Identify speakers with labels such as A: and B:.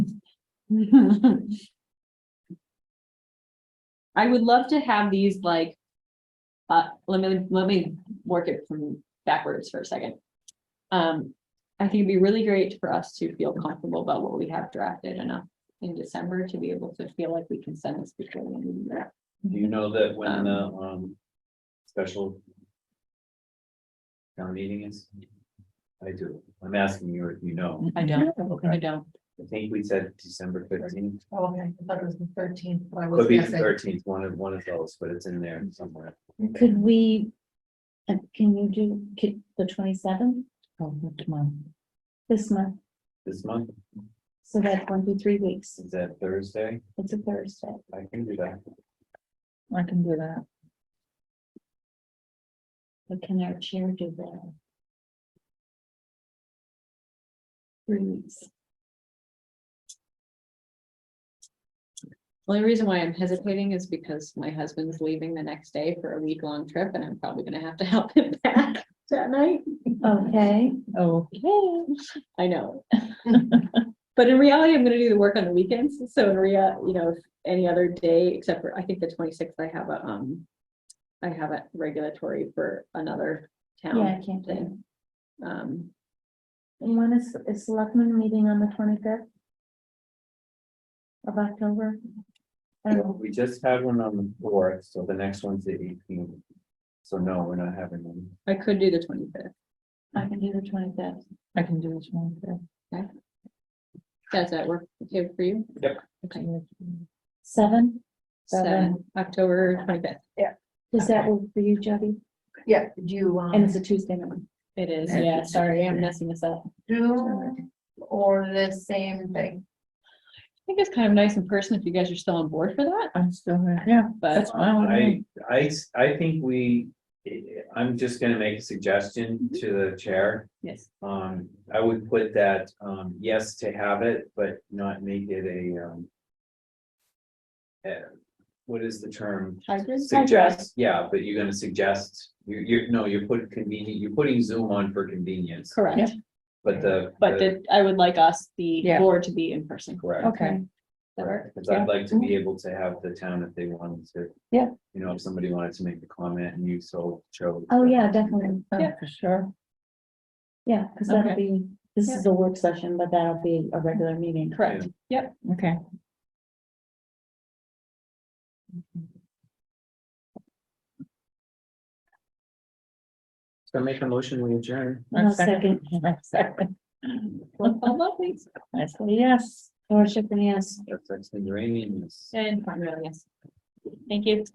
A: I would love to have these like, uh, let me, let me work it from backwards for a second. Um, I think it'd be really great for us to feel comfortable about what we have drafted enough in December to be able to feel like we can send this before the end of the year.
B: Do you know that when the, um, special. Town meeting is? I do, I'm asking you if you know,
A: I don't, I
B: okay,
A: don't.
B: I think we said December fifteenth,
C: Oh, Okay, I thought it was the thirteenth, but I
B: could be the
C: was.
B: thirteenth, one of, one of those, but it's in there somewhere.
D: Could we, uh, can you do, could, the twenty-seventh this month?
B: This month,
D: So that's one to three weeks.
B: is that Thursday?
D: It's a Thursday.
B: I can do that,
C: I can do that.
D: But can our chair do that? Three weeks.
A: Only reason why I'm hesitating is because my husband's leaving the next day for a week-long trip and I'm probably gonna have to help him back that night.
D: Okay,
C: Oh,
A: "Yeah, I know. But in reality, I'm gonna do the work on the weekends, so in rea, you know, if any other day, except for, I think the twenty-sixth, I have a, um. I have a regulatory for another
D: yeah,
A: town.
D: I can't do. it.
A: Um,
D: And when is, is selectmen meeting on the twenty-fifth? Of October? Oh, I don't know.
B: we just had one on the fourth, so the next one's the eighteenth. So no, we're not having one,
A: I could do the twenty-fifth,
D: I can do the twenty-fifth.
C: I can do this one.
A: does that work okay for you? Okay.
D: Seven,
A: Seven, October twenty-fifth,
D: is that work for you, Jody?
C: Yeah, do you,
D: And it's
C: um,
D: a Tuesday night.
A: it is,
C: Okay.
A: yeah, sorry, I'm messing this up.
C: do or the same thing?
A: I think it's kind of nice in person if you guys are still on board for that,
C: I'm still there. Yeah,
A: but
C: fine.
B: I, I, s- I think we, I'm just gonna make a suggestion to the chair.
A: yes,
B: Um, I would put that, um, yes to have it, but not make it a, um. eh, what is the term?
A: hybrid,
B: Suggest, yeah, but you're gonna suggest, you, you, no, you're putting convenient, you're putting Zoom on for convenience,
A: correct,
C: Yeah.
B: but the.
A: but that I would like us, the
C: Yeah.
A: board, to be in person.
B: Correct,
C: Okay,
A: That work?
B: because I'd like to be able to have the town if they wanted to.
C: Yeah.
B: You know, if somebody wanted to make a comment and you so chose.
D: Oh, yeah, definitely. Oh.
C: yeah, for sure.
D: Yeah, because that'll
A: Okay.
D: be, this
A: Yeah.
D: is a work session, but that'll be a regular meeting.
A: Correct, yep,
C: Okay.
B: So make a motion, we adjourn.
D: No second.
C: No second.
A: Well, I love these.
C: I say yes.
D: Worship and yes.
B: That's, that's the uranium.
A: and, yes, thank you.